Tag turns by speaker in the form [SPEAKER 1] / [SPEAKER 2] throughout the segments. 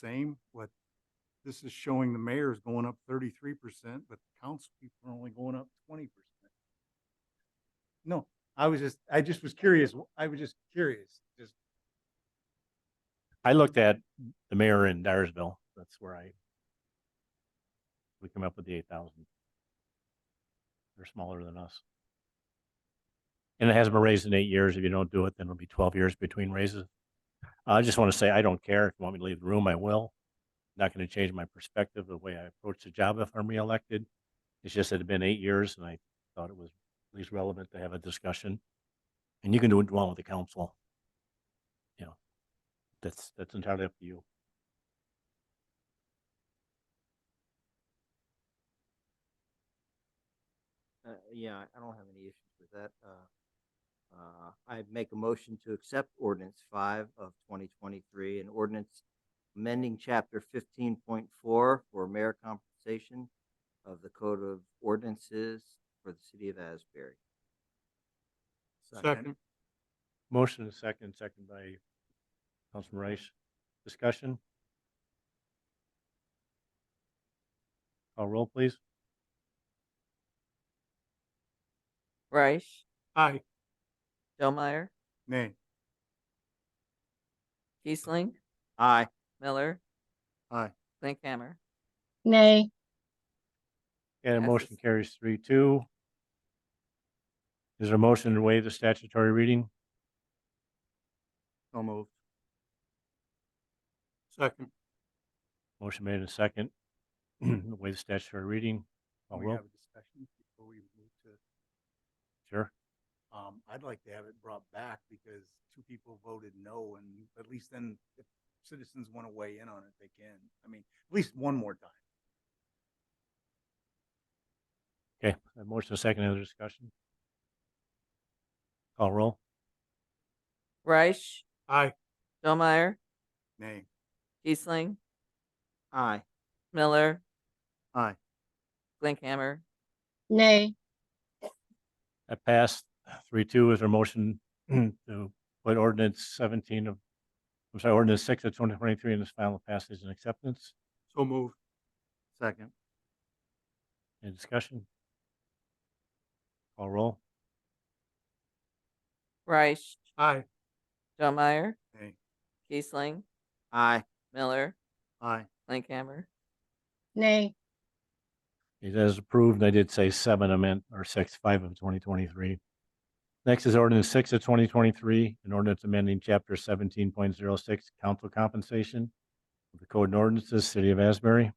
[SPEAKER 1] same, but this is showing the mayor's going up thirty-three percent, but the council people are only going up twenty percent. No, I was just, I just was curious. I was just curious, just.
[SPEAKER 2] I looked at the mayor in Dyersville. That's where I. We come up with the eight thousand. They're smaller than us. And it hasn't been raised in eight years. If you don't do it, then it'll be twelve years between raises. I just want to say, I don't care. If you want me to leave the room, I will. Not going to change my perspective, the way I approach the job if I'm reelected. It's just that it'd been eight years and I thought it was at least relevant to have a discussion. And you can do it along with the council. You know, that's, that's entirely up to you.
[SPEAKER 3] Uh, yeah, I- I don't have any issues with that. Uh, uh, I make a motion to accept ordinance five of twenty twenty-three, an ordinance amending chapter fifteen point four for mayor compensation of the code of ordinances for the city of Asbury.
[SPEAKER 2] Motion is second, second by Councilman Rice. Discussion? Call roll, please.
[SPEAKER 4] Reich,
[SPEAKER 1] Aye.
[SPEAKER 4] Delmeyer,
[SPEAKER 1] Nay.
[SPEAKER 4] Kiesling,
[SPEAKER 3] Aye.
[SPEAKER 4] Miller.
[SPEAKER 1] Aye.
[SPEAKER 4] Linkhammer.
[SPEAKER 5] Nay,
[SPEAKER 2] And a motion
[SPEAKER 4] Passes.
[SPEAKER 2] carries three, two. Is there a motion to waive the statutory reading?
[SPEAKER 3] So moved.
[SPEAKER 1] Second.
[SPEAKER 2] Motion made in second. Waive the statutory reading. Call
[SPEAKER 1] We
[SPEAKER 2] roll,
[SPEAKER 1] have a discussion before we move to
[SPEAKER 2] sure.
[SPEAKER 1] Um, I'd like to have it brought back because two people voted no and at least then if citizens want to weigh in on it, they can. I mean, at least one more time.
[SPEAKER 2] Okay, a motion is second, other discussion? Call roll.
[SPEAKER 4] Reich,
[SPEAKER 1] Aye.
[SPEAKER 4] Delmeyer,
[SPEAKER 1] Nay.
[SPEAKER 4] Kiesling,
[SPEAKER 3] Aye.
[SPEAKER 4] Miller.
[SPEAKER 1] Aye.
[SPEAKER 4] Linkhammer,
[SPEAKER 5] nay,
[SPEAKER 2] That passed three two. Is there a motion to put ordinance seventeen of, I'm sorry, ordinance six of twenty twenty-three in its final passage and acceptance?
[SPEAKER 1] So moved. Second.
[SPEAKER 2] Any discussion? Call roll.
[SPEAKER 4] Reich,
[SPEAKER 1] Aye.
[SPEAKER 4] Delmeyer,
[SPEAKER 1] Nay.
[SPEAKER 4] Kiesling,
[SPEAKER 3] Aye.
[SPEAKER 4] Miller,
[SPEAKER 1] Aye.
[SPEAKER 4] Linkhammer.
[SPEAKER 5] nay,
[SPEAKER 2] It is approved. and I did say seven, I meant, or six, five of twenty twenty-three. Next is ordinance six of twenty twenty-three, an ordinance amending chapter seventeen point zero six, council compensation of the code and ordinances, city of Asbury.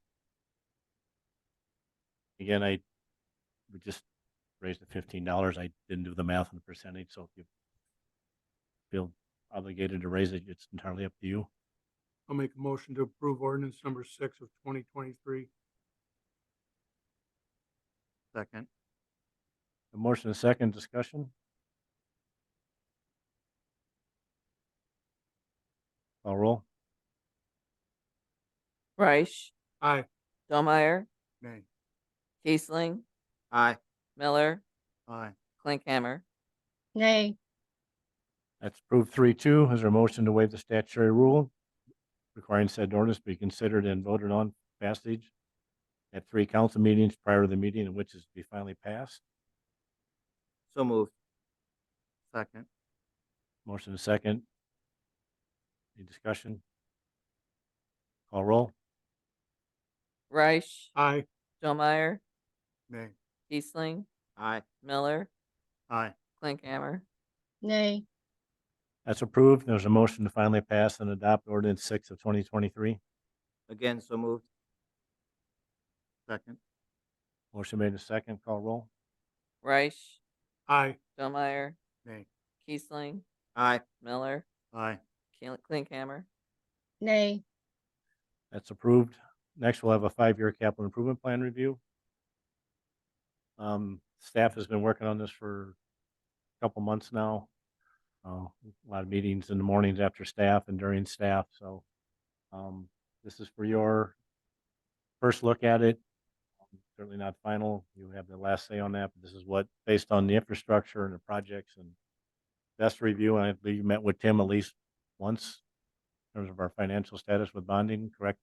[SPEAKER 2] Again, I we just raised the fifteen dollars. I didn't do the math on the percentage, so if you feel obligated to raise it, it's entirely up to you.
[SPEAKER 6] I'll make a motion to approve ordinance number six of twenty twenty-three.
[SPEAKER 3] Second.
[SPEAKER 2] A motion, and a second discussion? Call roll.
[SPEAKER 4] Reich,
[SPEAKER 6] Aye.
[SPEAKER 4] Delmeyer,
[SPEAKER 1] Nay.
[SPEAKER 4] Kiesling,
[SPEAKER 3] Aye.
[SPEAKER 4] Miller,
[SPEAKER 1] Aye.
[SPEAKER 4] Linkhammer.
[SPEAKER 5] nay,
[SPEAKER 2] That's approved three two. Is there a motion to waive the statutory rule requiring said ordinance be considered and voted on passage at three council meetings prior to the meeting in which is to be finally passed?
[SPEAKER 3] So moved. Second.
[SPEAKER 2] Motion, and a second. Any discussion? Call roll.
[SPEAKER 4] Reich,
[SPEAKER 6] Aye.
[SPEAKER 4] Delmeyer,
[SPEAKER 1] Nay.
[SPEAKER 4] Kiesling,
[SPEAKER 3] Aye.
[SPEAKER 4] Miller,
[SPEAKER 1] Aye.
[SPEAKER 4] Linkhammer.
[SPEAKER 5] nay,
[SPEAKER 2] That's approved. There's a motion to finally pass and adopt ordinance six of twenty twenty-three.
[SPEAKER 3] Again, so moved. Second.
[SPEAKER 2] Motion made in second. Call roll.
[SPEAKER 4] Reich,
[SPEAKER 6] Aye.
[SPEAKER 4] Delmeyer,
[SPEAKER 1] Nay.
[SPEAKER 4] Kiesling,
[SPEAKER 3] Aye.
[SPEAKER 4] Miller,
[SPEAKER 1] Aye.
[SPEAKER 4] Keel- Linkhammer.
[SPEAKER 5] nay,
[SPEAKER 2] That's approved. Next, we'll have a five-year capital improvement plan review. Um, staff has been working on this for a couple months now. Uh, a lot of meetings in the mornings after staff and during staff, so, um, this is for your first look at it. Certainly not final. You have the last say on that, but this is what, based on the infrastructure and the projects and best review, and I believe you met with Tim at least once terms of our financial status with bonding, correct